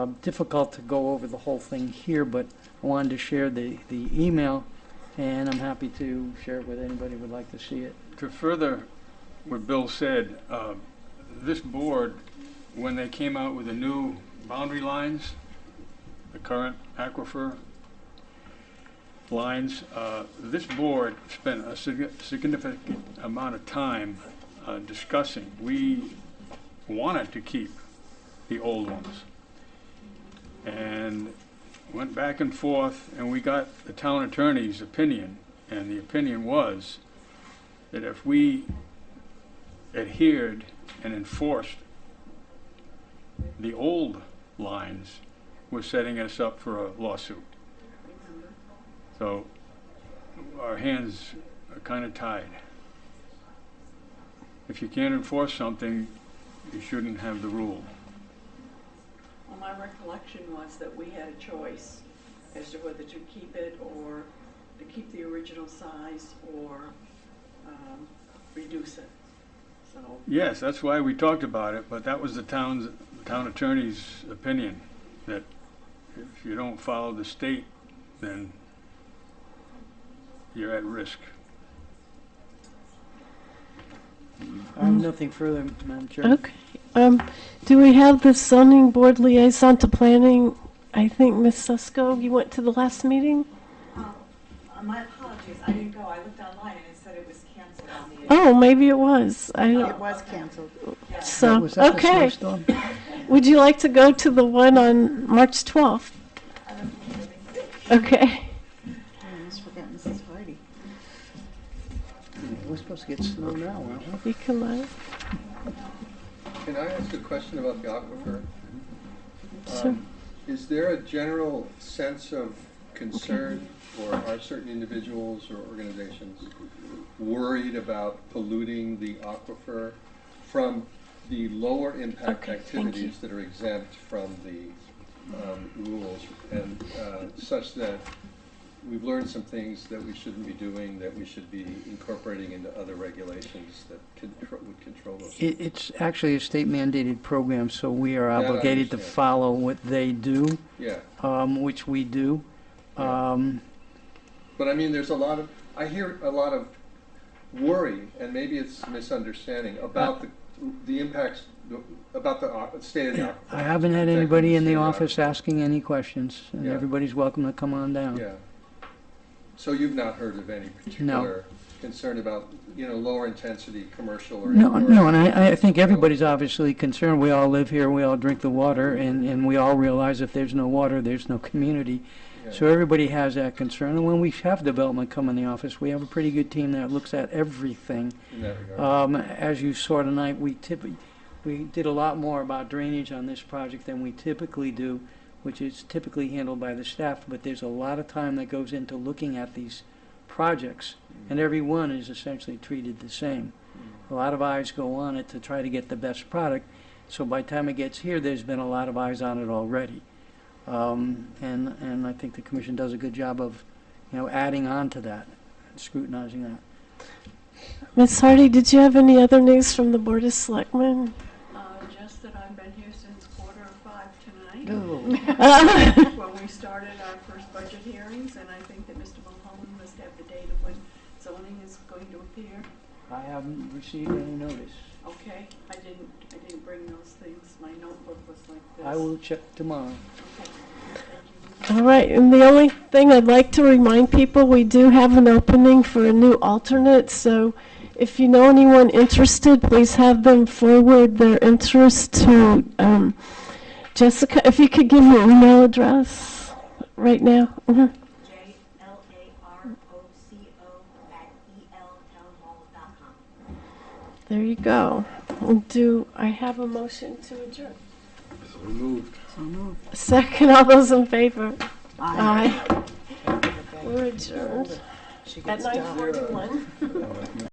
um, difficult to go over the whole thing here, but I wanted to share the, the email, and I'm happy to share it with anybody who would like to see it. To further what Bill said, uh, this board, when they came out with the new boundary lines, the current aquifer lines, uh, this board spent a sig- significant amount of time uh, discussing. We wanted to keep the old ones. And went back and forth, and we got the town attorney's opinion, and the opinion was that if we adhered and enforced the old lines, we're setting us up for a lawsuit. So our hands are kind of tied. If you can't enforce something, you shouldn't have the rule. Well, my recollection was that we had a choice as to whether to keep it or to keep the original size or um, reduce it. So, Yes, that's why we talked about it, but that was the town's, town attorney's opinion, that if you don't follow the state, then you're at risk. I have Um, nothing further, Madam Chair. Okay. Um, do we have the zoning board liaison to planning? I think Ms. Susko, you went to the last meeting? Um, uh, My apologies, I didn't go, I looked online and it said it was canceled on the. Oh, maybe it was. I It don't, was canceled. Yes, so, Was that the okay. snowstorm? Would you like to go to the one on March 12th? I don't think it was- Okay. I almost forgot Mrs. Hardy. We're supposed to get snow now, aren't we? You can, uh, Can I ask a question about the aquifer? Sure. Um, Is there a general sense of concern, or are certain individuals or organizations worried about polluting the aquifer from the lower impact Okay, thank activities that are exempt from the um, rules, and uh, such that we've learned some things that we shouldn't be doing, that we should be incorporating into other regulations that contro- would control those? It, it's actually a state mandated program, so we are That I obligated to understand. follow what they do, Yeah. um, which we do. Yeah. Um, But I mean, there's a lot of, I hear a lot of worry, and maybe it's misunderstanding, about the, the impacts, about the uh, au- state of the aquifer. I haven't had Protecting anybody in state the of office asking any questions, and uh, Yeah. everybody's welcome to come on down. Yeah. So you've not heard of any particular concern about, you know, lower intensity, commercial or. No, or- no, and I, I think everybody's obviously concerned. We all live here, we all drink the water, and, and we all realize if there's no water, there's no community. Yeah. So everybody has that concern, and when we have development come in the office, we have a pretty good team that looks at everything. In that regard. Um, as you saw tonight, we typically, we did a lot more about drainage on this project than we typically do, which is typically handled by the staff, but there's a lot of time that goes into looking at these projects, Hmm. and every one is essentially treated the same. A lot of eyes go on it to try to get the best product, so by the time it gets here, there's been a lot of eyes on it already. Um, and, and I think the commission does a good job of, you know, adding on to that, scrutinizing that. Ms. Hardy, did you have any other news from the Board of Selectmen? uh, just that I've been here since quarter of five tonight, No. when we started our first budget hearings, and I think that Mr. Mulholland must have the date of when zoning is going to appear. I haven't received any notice. Okay, I didn't, I didn't bring those things, my notebook was like this. I will check tomorrow. Okay, thank you. All right, and the only thing I'd like to remind people, we do have an opening for a new alternate, so if you know anyone interested, please have them forward their interest to um, Jessica, if you could give your email address right now. Mhm. J L A R O C O at E L dot com. There you go. Do I have a motion to adjourn? Removed. So moved. Second, all those in favor? Aye. Aye. We're adjourned She at gets down. 9:41.